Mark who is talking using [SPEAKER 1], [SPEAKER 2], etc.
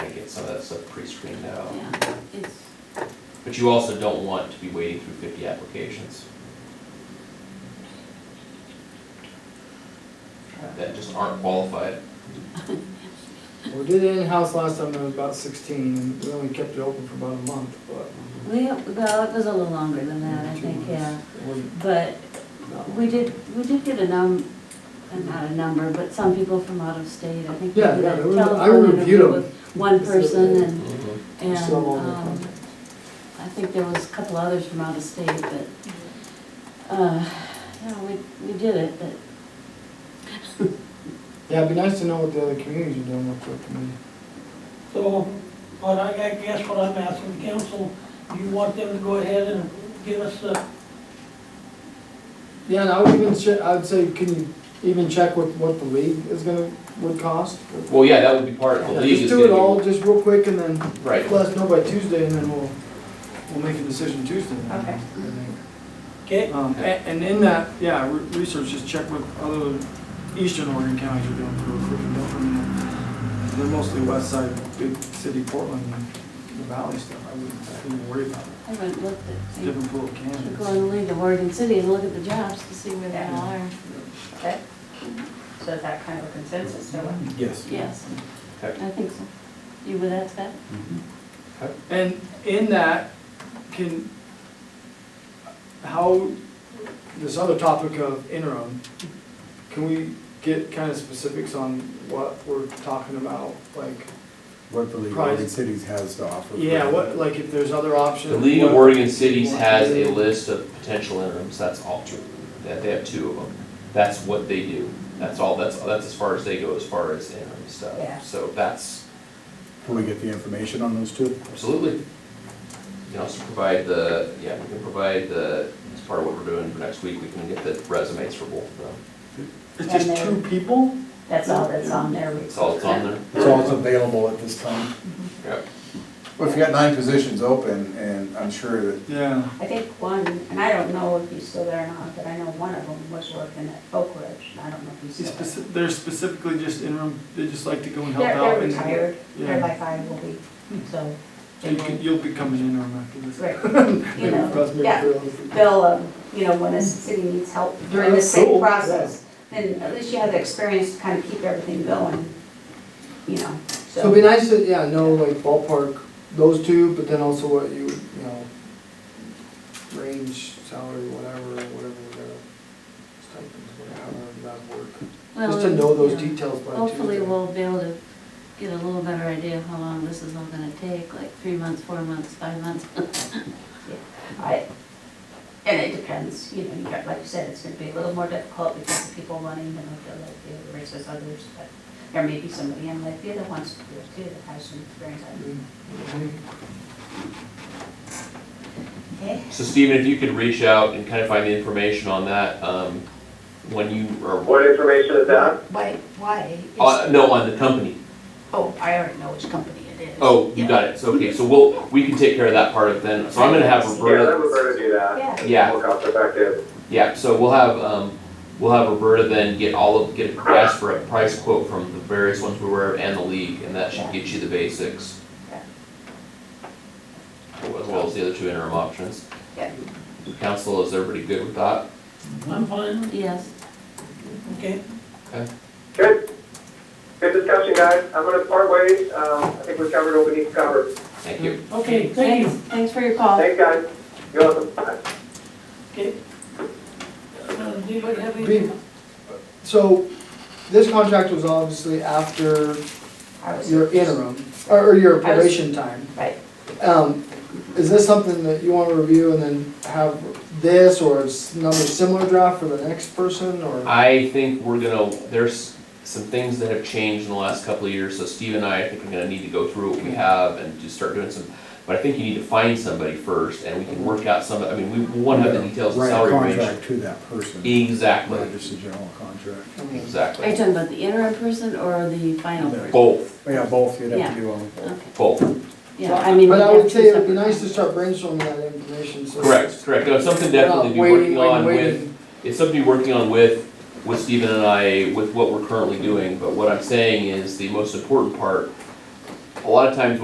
[SPEAKER 1] some of that stuff pre-screened out.
[SPEAKER 2] Yeah, it's,
[SPEAKER 1] But you also don't want to be wading through fifty applications that just aren't qualified.
[SPEAKER 3] We did it in-house last time, there was about sixteen, and we only kept it open for about a month, but.
[SPEAKER 2] we, well, it was a little longer than that, I
[SPEAKER 3] two
[SPEAKER 2] think,
[SPEAKER 3] months.
[SPEAKER 2] yeah.
[SPEAKER 3] It wasn't-
[SPEAKER 2] But
[SPEAKER 3] no.
[SPEAKER 2] we did, we did get a num, uh, not a number, but some people from out of state, I think. we
[SPEAKER 3] Yeah,
[SPEAKER 2] did
[SPEAKER 3] yeah,
[SPEAKER 2] a
[SPEAKER 3] there was- I
[SPEAKER 2] telephone
[SPEAKER 3] reviewed
[SPEAKER 2] interview
[SPEAKER 3] them.
[SPEAKER 2] with One person and, and,
[SPEAKER 3] Still all in
[SPEAKER 2] um,
[SPEAKER 3] contact.
[SPEAKER 2] I think there was a couple others from out of state, but, uh, yeah, we, we did it, but
[SPEAKER 3] Yeah, it'd be nice to know what the other communities are doing real quick, I mean,
[SPEAKER 4] So, but I I guess what I'm asking the council, you want them to go ahead and give us the,
[SPEAKER 3] yeah, and I would even, che- I'd say, can you even check what, what the league is gonna, would cost?
[SPEAKER 1] Well, yeah, that would be part of the
[SPEAKER 3] Yeah,
[SPEAKER 1] league
[SPEAKER 3] Just
[SPEAKER 1] is
[SPEAKER 3] do it
[SPEAKER 1] gonna be-
[SPEAKER 3] all, just real quick, and then
[SPEAKER 1] Right,
[SPEAKER 3] let us know by Tuesday, and then we'll, we'll make a decision Tuesday. then,
[SPEAKER 5] Okay.
[SPEAKER 3] I think.
[SPEAKER 4] okay?
[SPEAKER 3] Um, a- and in that, yeah, re- research, just check what other eastern Oregon counties are doing for recruiting, don't from the- they're mostly west side, big city Portland, and the valley stuff, I wouldn't, I wouldn't worry about it,
[SPEAKER 2] I haven't looked
[SPEAKER 3] it's a
[SPEAKER 2] at,
[SPEAKER 3] different pool of
[SPEAKER 2] I should go
[SPEAKER 3] candidates.
[SPEAKER 2] on the League of Oregon City and look at the jobs to see where they
[SPEAKER 5] Yeah.
[SPEAKER 2] are.
[SPEAKER 5] Okay. So is that kind of a consensus, so what?
[SPEAKER 6] Yes.
[SPEAKER 2] Yes,
[SPEAKER 1] Okay.
[SPEAKER 2] I think so. You would ask that?
[SPEAKER 3] Mm-hmm. And in that, can, how, this other topic of interim, can we get kind of specifics on what we're talking about, like,
[SPEAKER 6] What the League of
[SPEAKER 3] Price.
[SPEAKER 6] Oregon Cities has to offer.
[SPEAKER 3] yeah, what, like, if there's other options?
[SPEAKER 1] the League of
[SPEAKER 3] what-
[SPEAKER 1] Oregon Cities has a list of potential interims, that's all, that, they have two of them. That's what they do, that's all, that's, that's as far as they go as far as interim
[SPEAKER 5] Yeah.
[SPEAKER 1] stuff, so that's,
[SPEAKER 6] Can we get the information on those two?
[SPEAKER 1] absolutely. You can also provide the, yeah, we can provide the, as part of what we're doing for next week, we can get the resumes for both of them.
[SPEAKER 3] It's just two
[SPEAKER 5] And
[SPEAKER 3] people?
[SPEAKER 5] That's all that's on there.
[SPEAKER 1] That's all that's on there.
[SPEAKER 6] It's all that's available at this time.
[SPEAKER 1] Yep.
[SPEAKER 6] Well, if you got nine positions open, and I'm sure that
[SPEAKER 3] Yeah.
[SPEAKER 5] I think one, and I don't know if he's still there or not, but I know one of them was working at Oak Ridge, and I don't know if he's
[SPEAKER 3] It's
[SPEAKER 5] still there.
[SPEAKER 3] speci- They're specifically just interim, they just like to go and help
[SPEAKER 5] They're, they're
[SPEAKER 3] out. and-
[SPEAKER 5] retired, they're
[SPEAKER 3] Yeah.
[SPEAKER 5] like five a week, so. they
[SPEAKER 3] And you can-
[SPEAKER 5] will-
[SPEAKER 3] you'll become an interim after this.
[SPEAKER 5] Right, you know, yeah, they'll, um, you know, when a city needs help during the
[SPEAKER 3] That's
[SPEAKER 5] same
[SPEAKER 3] cool, yeah.
[SPEAKER 5] process, then at least you have the experience to kind of keep everything going, you know,
[SPEAKER 3] So it'd be
[SPEAKER 5] so.
[SPEAKER 3] nice to, yeah, know like ballpark, those two, but then also what you, you know, range, salary, whatever, whatever, whatever, stipends, whatever, however that work. Just to
[SPEAKER 2] Well,
[SPEAKER 3] know those
[SPEAKER 2] yeah.
[SPEAKER 3] details by Tuesday.
[SPEAKER 2] Hopefully, we'll be able to get a little better idea of how long this is all gonna take, like three months, four months, five months.
[SPEAKER 5] I, and it depends, you know, you got, like you said, it's gonna be a little more difficult because the people running, you know, they'll like the races others, but there may be somebody in Lakeview that wants to do it too, that has some experience on it. Okay,
[SPEAKER 1] So Stephen, if you could reach out and kind of find the information on that, um, when you are,
[SPEAKER 7] What information is that?
[SPEAKER 5] why, why?
[SPEAKER 1] uh, no, on the company.
[SPEAKER 5] Oh, I already know which company it is.
[SPEAKER 1] Oh, you got it, so, okay, so we'll, we can take care of that part of it then, so I'm gonna have
[SPEAKER 7] Yeah, let
[SPEAKER 1] Roberta.
[SPEAKER 7] Roberta do that.
[SPEAKER 5] Yeah.
[SPEAKER 7] It's
[SPEAKER 1] Yeah.
[SPEAKER 7] More cost effective.
[SPEAKER 1] Yeah, so we'll have, um, we'll have Roberta then get all of, get, ask for a price quote from the various ones we were and the league, and that should get you the basics.
[SPEAKER 5] Yeah.
[SPEAKER 1] As well as the other two interim options.
[SPEAKER 5] Yeah.
[SPEAKER 1] Council, is everybody good with that?
[SPEAKER 4] I'm fine,
[SPEAKER 2] Yes,
[SPEAKER 4] okay?
[SPEAKER 7] Good. Good discussion, guys. I'm gonna part ways. Um, I think we covered what we need to cover.
[SPEAKER 1] Thank you.
[SPEAKER 4] Okay, thank
[SPEAKER 2] thanks,
[SPEAKER 4] you.
[SPEAKER 2] thanks for your call.
[SPEAKER 7] Thanks, guys. You're welcome. Bye.
[SPEAKER 4] Okay. Uh, Do you have
[SPEAKER 3] Be-
[SPEAKER 4] any?
[SPEAKER 3] So, this contract was obviously after
[SPEAKER 5] I was-
[SPEAKER 3] your interim, or or your
[SPEAKER 5] was-
[SPEAKER 3] probation time.
[SPEAKER 5] Right,
[SPEAKER 3] Um, is this something that you wanna review and then have this or s- another similar draft for the next person, or?
[SPEAKER 1] I think we're gonna, there's some things that have changed in the last couple of years, so Steve and I, I think we're gonna need to go through what we have and just start doing some, but I think you need to find somebody first, and we can work out some, I mean, we we wanna have the details of
[SPEAKER 6] write a
[SPEAKER 1] salary range.
[SPEAKER 6] contract to that person, not
[SPEAKER 1] Exactly,
[SPEAKER 6] just a general contract.
[SPEAKER 3] I mean,
[SPEAKER 2] Are you
[SPEAKER 1] exactly.
[SPEAKER 2] talking about the interim person or the final person?
[SPEAKER 1] Both,
[SPEAKER 6] Yeah, both, you'd have
[SPEAKER 2] Yeah.
[SPEAKER 6] to do all.
[SPEAKER 2] Okay,
[SPEAKER 1] both,
[SPEAKER 2] yeah, I mean.
[SPEAKER 3] But I
[SPEAKER 2] we have
[SPEAKER 3] would
[SPEAKER 2] two
[SPEAKER 3] say it would be
[SPEAKER 2] separate-
[SPEAKER 3] nice to start brainstorming that information, so.
[SPEAKER 1] correct, correct, no, it's something
[SPEAKER 3] we're not
[SPEAKER 1] definitely to be
[SPEAKER 3] waiting,
[SPEAKER 1] working on
[SPEAKER 3] waiting,
[SPEAKER 1] with,
[SPEAKER 3] waiting.
[SPEAKER 1] it's something to be working on with, with Stephen and I, with what we're currently doing, but what I'm saying is the most important part, a lot of times